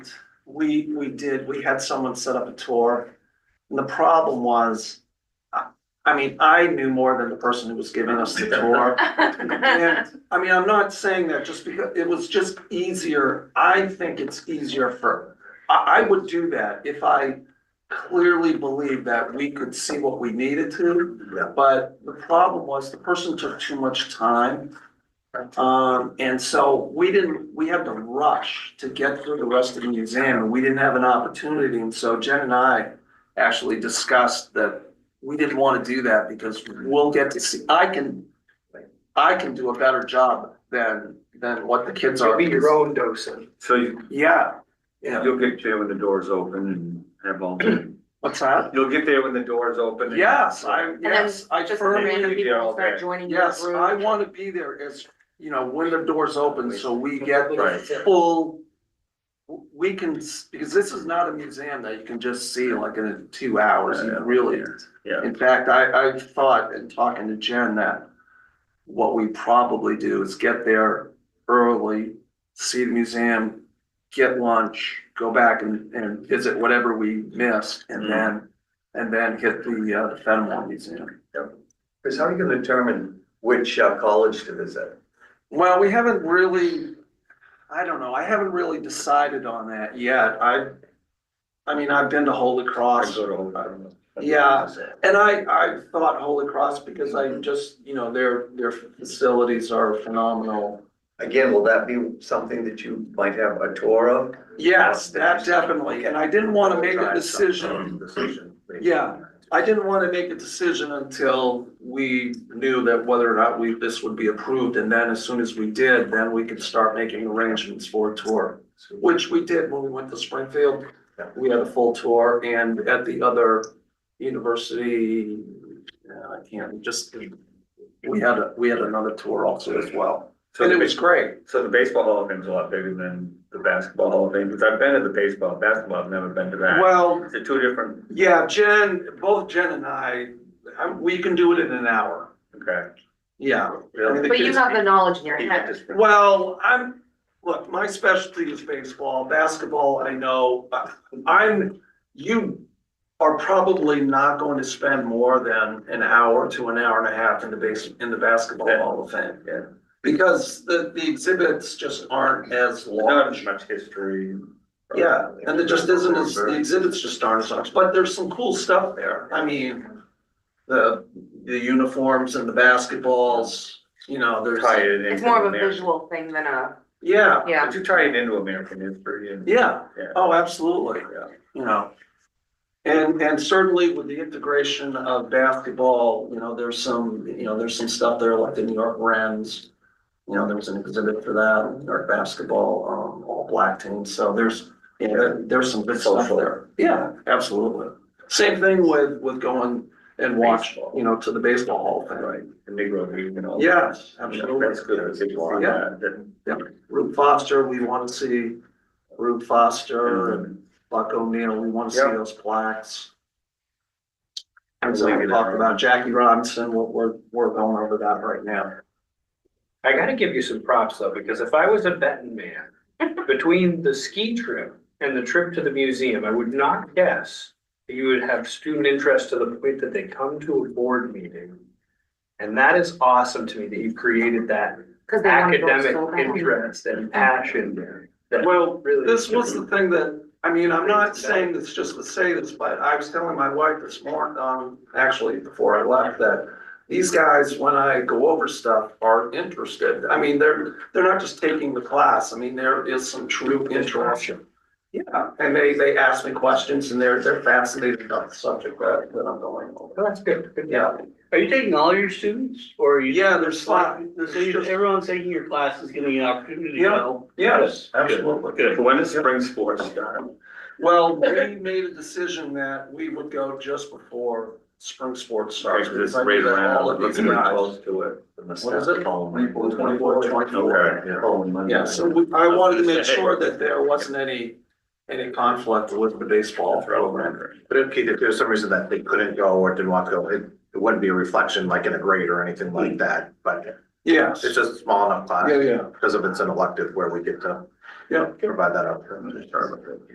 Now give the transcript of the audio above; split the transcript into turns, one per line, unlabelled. We, we did, we had someone set up a tour. And the problem was, I, I mean, I knew more than the person who was giving us the tour. And, I mean, I'm not saying that just because, it was just easier, I think it's easier for, I, I would do that if I clearly believed that we could see what we needed to.
Yeah.
But the problem was the person took too much time. Um, and so we didn't, we had to rush to get through the rest of the museum and we didn't have an opportunity. And so Jen and I actually discussed that we didn't want to do that because we'll get to see, I can, I can do a better job than, than what the kids are.
Be your own docent.
So you,
Yeah, yeah.
you'll get there when the doors open and have all,
What's that?
you'll get there when the doors open. and-
Yes, I,
then
yes, I
Just
firmly.
random
be there all
people start
day.
joining your
Yes,
group.
I want to be there as, you know, when the doors open, so we get
Right.
the full. We can, s- because this is not a museum that you can just see like in two hours, you really.
Yeah.
In fact, I, I thought in talking to Jen that what we probably do is get there early, see the museum, get lunch, go back and, and visit whatever we missed, and then, and then hit the, uh, the Fenimore Museum.
Because how are you gonna determine which uh, college to visit?
Well, we haven't really, I don't know, I haven't really decided on that yet. I, I mean, I've been to Holy
I
Cross
go to Old Town.
Yeah. and I, I thought Holy Cross because I just, you know, their, their facilities are phenomenal.
Again, will that be something that you might have a tour of?
Yes, that definitely, and I didn't want to make a
Try
decision.
some Decision. based
Yeah.
on that.
I didn't want to make a decision until we knew that whether or not we, this would be approved. And then as soon as we did, then we could start making arrangements for a tour.
So-
Which we did when we went to Springfield. We had a full tour and at the other university, uh, I can't, just, we had, a we had another tour also as well.
So
And
the
it was
base,
great.
so the baseball hall of fame is a lot bigger than the basketball hall of fame, because I've been to the baseball, basketball, I've never been to that.
Well,
They're two different,
yeah, Jen, both Jen and I, I- we can do it in an hour.
okay.
Yeah. I mean, the
But you
kids-
have the knowledge in your
You
head.
got this-
Well, I'm, look, my specialty is baseball, basketball, I know, but I'm, you are probably not going to spend more than an hour to an hour and a half in the base, in the basketball hall of fame.
Yeah.
Because the, the exhibits just aren't as
Not as
large.
much history.
Yeah, and there just isn't as, the exhibits just aren't as large, but there's some cool stuff there. I mean, the, the uniforms and the basketballs, you know, there's,
Tie it
It's
into
more of a
American-
visual thing than a,
yeah,
yeah.
But you tie it into American history and.
yeah.
Yeah.
Oh, absolutely.
Yeah.
you know. And, and certainly with the integration of basketball, you know, there's some, you know, there's some stuff there like the New York Rams. You know, there was an exhibit for that, New York basketball, um, all black team, so there's, you know, there- there's some good stuff
Social.
there. Yeah, absolutely. Same thing with, with going and watch,
Baseball.
you know, to the baseball hall thing.
Right, the Negro League and all. that.
Yes, absolutely.
That's good, that's good.
Yeah, Rube Foster, we wanna see Rube
Mm-hmm.
Foster and Buck O'Neill, we wanna see
Yeah.
those plaques.
I'm
As I
leaving
talked
it.
about Jackie Robinson, we're, we're, we're going over that right now.
I gotta give you some props though, because if I was a betting man, between the ski trip and the trip to the museum, I would not guess that you would have student interest to the point that they come to a board meeting. And that is awesome to me that you've created that
Cause they wanna go
academic
so bad.
interest and passion. that
Well,
really-
this was the thing that, I mean, I'm not saying this just to say this, but I was telling my wife this morning, um, actually before I left that these guys, when I go over stuff, are interested. I mean, they're, they're not just taking the class. I mean, there is some true interest. Yeah, and they, they ask me questions and they're, they're fascinated about the subject that, that I'm going over.
Well, That's good. good.
Yeah,
Are you taking all your students or are you?
yeah, there's like,
So you- everyone's taking your class is giving you an opportunity to
Yeah.
know?
yes,
Absolutely. Good. When does spring sports start?
Well, we made a decision that we would go just before spring sports starts.
Because it's
because I
right
knew that
around,
All of these
looking at
guys.
close to it.
What is it?
Twenty-four,
Twenty-four, twenty-four.
Okay, yeah.
Yeah, so we, I wanted to make sure that there wasn't any, any conflict with the baseball program.
But if, if there's some reason that they couldn't go or didn't want to go, it, it wouldn't be a reflection like in a grade or anything like that, but
Hmm. Yes,
it's just a small enough class.
yeah, yeah.
Because if it's an elective where we get to
Yeah.
provide that up.